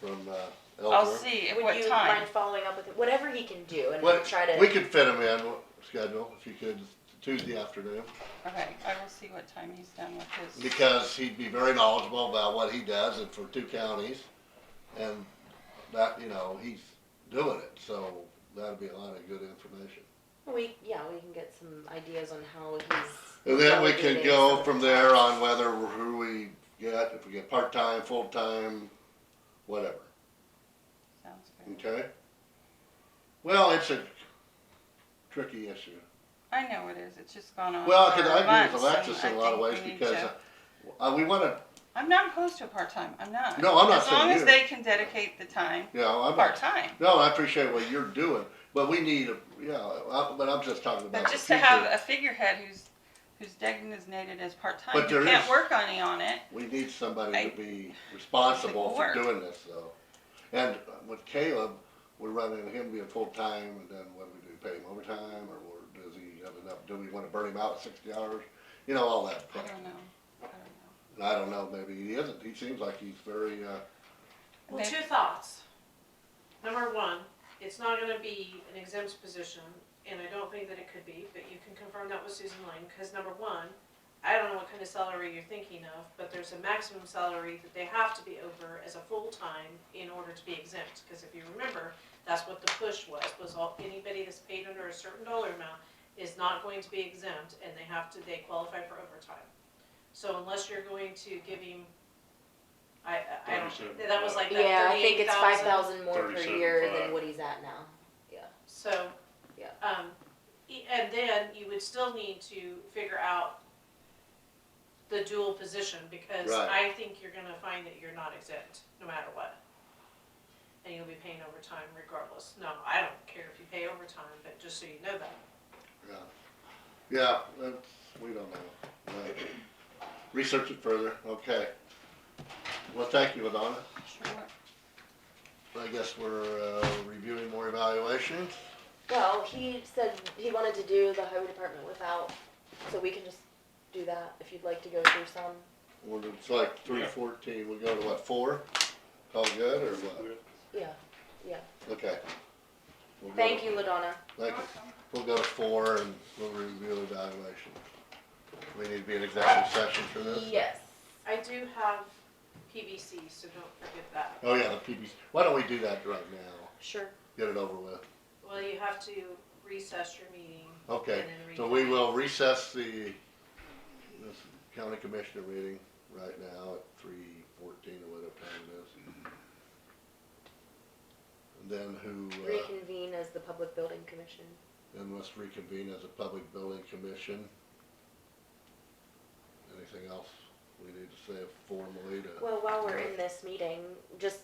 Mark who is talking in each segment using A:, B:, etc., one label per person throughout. A: from uh, Elder.
B: I'll see at
C: Would
B: what
C: you
B: time.
C: mind following up with him? whatever he can do and
A: What-
C: try to?
A: We could fit him in, uh, schedule, if you could, Tuesday afternoon,
B: Okay, I will see what time he's done with his.
A: because he'd be very knowledgeable about what he does and for two counties. And that, you know, he's doing it, so that'd be a lot of good information.
C: We yeah, we can get some ideas on how he's.
A: And then we
C: delegating
A: can go
C: some
A: from there on whether, we're- who we get, if we get part-time, full-time, whatever.
B: Sounds good.
A: Okay? Well, it's a tricky issue.
B: I know it is. It's just gone on.
A: Well,
B: for
A: because I agree
B: months,
A: with Alexis in
B: and
A: a
B: I
A: lot of
B: think
A: ways
B: we need
A: because
B: to-
A: uh, we want to,
B: I'm not opposed to a part time. I'm not.
A: No, I'm not
B: As long
A: saying
B: as
A: you.
B: they can dedicate the time,
A: you know, I'm
B: part
A: not,
B: time.
A: no, I appreciate what you're doing, but we need, a yeah, I- but I'm just talking about
B: But
A: the
B: just to have
A: future.
B: a figurehead who's, who's designated as part-time,
A: But
B: you
A: there
B: can't
A: is-
B: work any on it.
A: We need somebody
B: I-
A: to be responsible for
B: work.
A: doing this though. And with Caleb, we're running him being full-time and then what do we do, pay him overtime or we're- does he have enough, do we want to burn him out at sixty hours? You know, all that
B: I
A: crap.
B: don't know. I don't know.
A: And I don't know, maybe he isn't. He seems like he's very, uh,
D: Well, two thoughts. Number one, it's not gonna be an exempt position, and I don't think that it could be, but you can confirm that with Susan Lane, cause number one, I don't know what kind of salary you're thinking of, but there's a maximum salary that they have to be over as a full-time in order to be exempt, cause if you remember, that's what the push was, was all, anybody that's paid under a certain dollar amount is not going to be exempt, and they have to, they qualify for overtime. So unless you're going to give him, I, I I don't,
E: 37.
D: that was like that
C: Yeah, I think it's five
D: 38,000.
C: thousand more per year than
E: 37,500.
C: what he's at now.
D: So.
C: Yeah.
D: Um, e- and then you would still need to figure out the dual position, because
A: Right.
D: I think you're gonna find that you're not exempt, no matter what. And you'll be paying overtime regardless. No, I don't care if you pay overtime, but just so you know that.
A: yeah, that's, we don't know. Uh, Research it further, okay. Well, thank you, Ladonna.
B: Sure.
A: I guess we're, uh, reviewing more evaluations.
C: Well, he said he wanted to do the highway department without, so we can just do that if you'd like to go through some.
A: We're, it's like three
E: Yeah.
A: fourteen, we go to what, four? All good, or what?
C: Yeah.
A: Okay. We'll go
C: Thank
A: to-
C: you, Ladonna.
A: Thank you. We'll go to four and we'll review the evaluation. We need to be in executive session for this?
C: Yes.
D: I do have PVC, so don't forget that.
A: Oh, yeah, the PBC. Why don't we do that right now?
C: Sure.
A: Get it over with.
D: Well, you have to recess your meeting.
A: Okay,
D: And then
A: so we
D: reconvene.
A: will recess the, this county commissioner meeting right now at three fourteen or whatever time it is. And then who, uh,
C: Reconvene as the public building commission.
A: then let's reconvene as a public building commission. Anything else we need to say formally to?
C: Well, while we're in this meeting, just,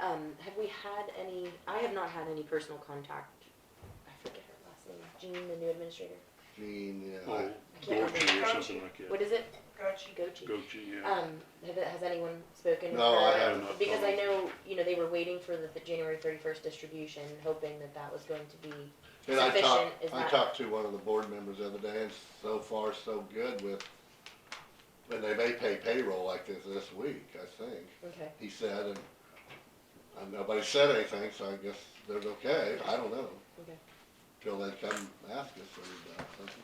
C: um, have we had any, I have not had any personal contact. I forget her last name. Jean, the new administrator.
A: Gene, yeah,
E: Oh,
A: I-
E: Gorchie or something like that.
C: What is it?
D: Gotcha.
C: Gochi.
E: Gochie, yeah.
C: Um, have, has anyone spoken with
A: No, I
C: her?
A: haven't.
E: Not
C: Because I
E: talked.
C: know, you know, they were waiting for the, the January thirty-first distribution, hoping that that was going to be,
A: and I
C: Sufficient
A: talked,
C: is
A: I
C: not-
A: talked to one of the board members the other day and so far so good with, and they may pay payroll like this this week, I think.
C: okay.
A: he said, and, and nobody said anything, so I guess they're okay, I don't know.
C: Okay.
A: Till they come ask us or about something.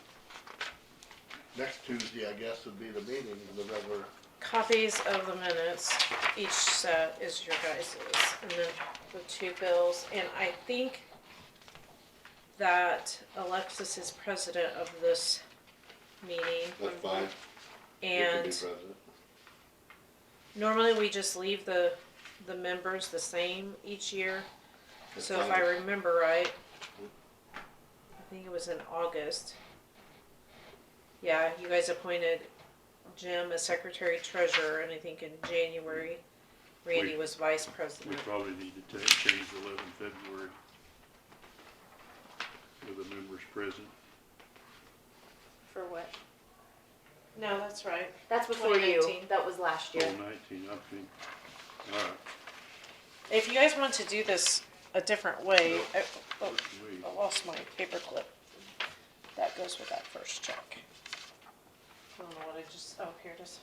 A: Next Tuesday, I guess, would be the meeting, the regular,
D: Copies of the minutes, each set is your guys's, and then the two bills, and I think that Alexis is president of this meeting.
A: that's fine, you can be
D: And
A: president.
D: normally we just leave the, the members the same each year,
A: That's
D: so if I
A: fine.
D: remember right, I think it was in August. Yeah, you guys appointed Jim as secretary treasurer, and I think in January, Randy
E: We-
D: was vice
E: We
D: president.
E: probably need to ta- change eleven February with the members present.
C: For what?
D: No, that's right.
C: That's before you,
D: 2019.
C: that was last
E: Oh,
C: year.
E: nineteen, I think. All right,
D: If you guys want to do this a different way, I, oh,
E: let's wait.
D: I lost my paperclip. That goes with that first check. I don't know what I just, oh, here it is.